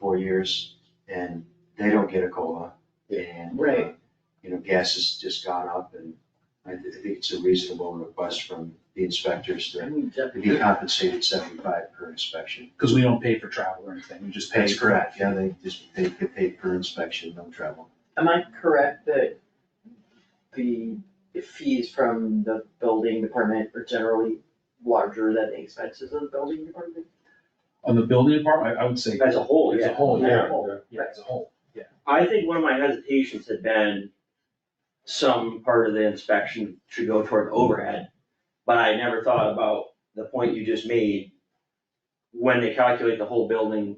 four years and they don't get a COLA. And, uh, Right. you know, gas has just gone up and I thi- I think it's a reasonable request from the inspectors to to be compensated seventy-five per inspection. Because we don't pay for travel or anything, we just pay. That's correct, yeah, they just, they get paid per inspection, no travel. Am I correct that the fees from the building department are generally larger than the expenses of the building department? On the building department, I, I would say. As a whole, As yeah. a whole, Yeah. yeah, Whole, yeah, as a whole, yeah. I think one of my hesitations had been some part of the inspection should go toward overhead, but I never thought about the point you just made. When they calculate the whole building,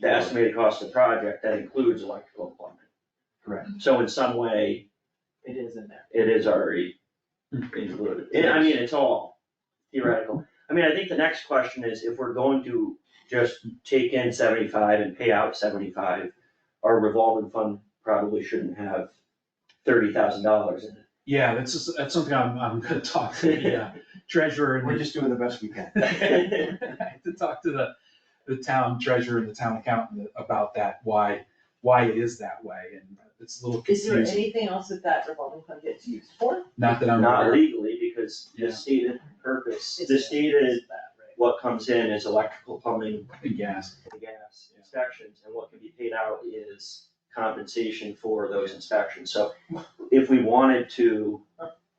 the estimated cost of the project, that includes electrical and plumbing. Correct. So in some way, It is in there. it is already included. And I mean, it's all theoretical. I mean, I think the next question is if we're going to just take in seventy-five and pay out seventy-five, our revolving fund probably shouldn't have thirty thousand dollars in it. Yeah, that's, just- that's something I'm, I'm gonna talk to the uh, treasurer and. We're just doing the best we can. I had to talk to the, the town treasurer and the town accountant about that, why, why it is that way, and it's a little Is there confusing. anything else that that revolving fund gets used for? Not that I'm Not aware of. legally, because the Yeah. stated purpose, It's- the stated it's that, right? what comes in is electrical, plumbing, in gas. and gas inspections, and what can be paid out is compensation for those inspections. So if we wanted to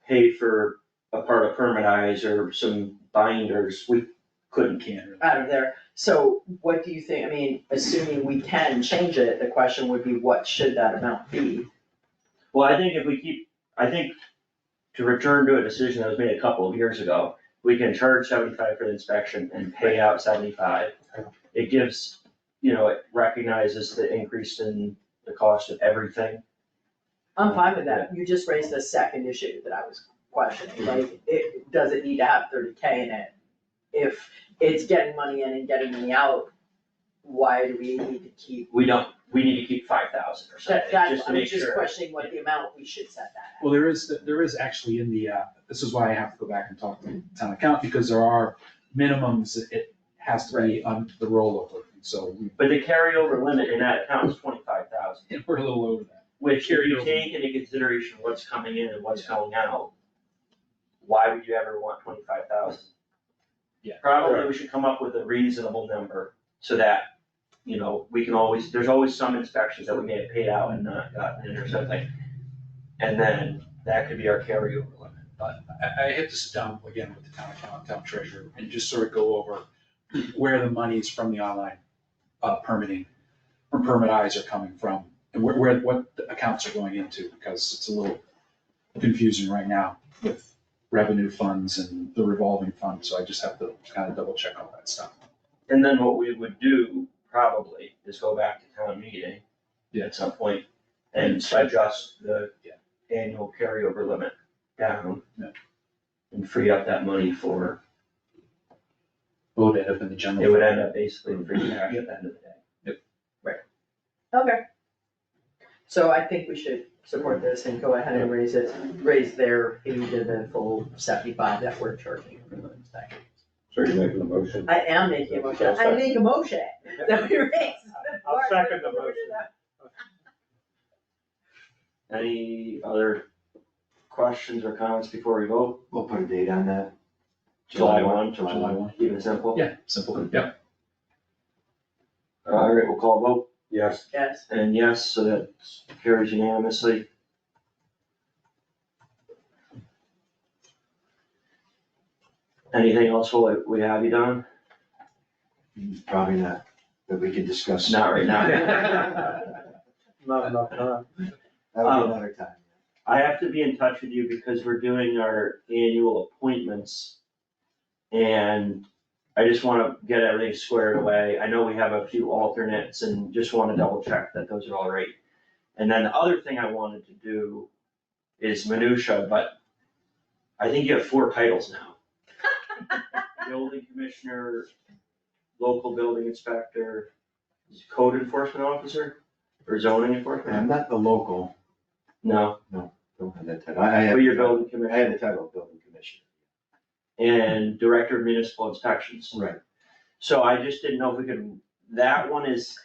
pay for a part of permitize or some binders, we couldn't. Can't really. Out of there. So what do you think, I mean, assuming we can change it, the question would be what should that amount be? Well, I think if we keep, I think to return to a decision that was made a couple of years ago, we can charge seventy-five for the inspection and pay out seventy-five. It gives, you know, it recognizes the increase in the cost of everything. I'm fine with that, you just raised the second issue that I was questioning, like, it, does it need to have thirty K in it? If it's getting money in and getting money out, why do we need to keep? We don't, we need to keep five thousand or something, That, just that's, to I'm make just sure. questioning what the amount we should set that Well, there is, there is actually in the, uh, this is why I have to go back and talk to the town accountant, because there are minimums, that it has to be on the rollover, so we- But the carryover limit in that account is twenty-five thousand, we're a little over that. which if you Carryover. take into consideration what's coming in and what's going out, why would you ever want twenty-five thousand? Yeah. Probably we should come up with a reasonable number so that, you know, we can always, there's always some inspections that we may have paid out and not gotten in or something. And then that could be our carryover limit. I, I had to sit down again with the town accountant, town treasurer, and just sort of go over where the monies from the online uh, permitting, from permit eyes are coming from, and where, where, what the accounts are going into, because it's a little confusing right now with revenue funds and the revolving fund, so I just have to kind of double check all that stuff. And then what we would do probably is go back to town meeting Yeah. at some point and adjust the annual carryover limit down. Yeah. And free up that money for, Vote it up in the general. it would end up basically free cash at the end of the day. at. Okay. So I think we should support this and go ahead and raise it, raise their fee to the full seventy-five that we're charging for the inspection. So you're making a motion? I am making a motion, I make a motion that we raise. I'll second the motion. Any other questions or comments before we vote? We'll put a date on that. July one, July July one. one. keep it simple. Yeah, simple, yeah. All right, we'll call a vote, Yes. Yes, and yes, so that carries unanimously. Anything else will we have you done? Probably not, that we can discuss. Not right now. Not Not enough time. That would be another time. I have to be in touch with you because we're doing our annual appointments. And I just wanna get everything squared away. I know we have a few alternates and just wanna double check that those are all right. And then the other thing I wanted to do is minutia, but I think you have four titles now. Building commissioner, local building inspector, code enforcement officer, or zoning enforcement? I'm not the local, No, don't have that title, I, I have. but you're building I commissioner. had the title of building commissioner. and Director of Municipal Inspections. Right. So I just didn't know if we could, that one is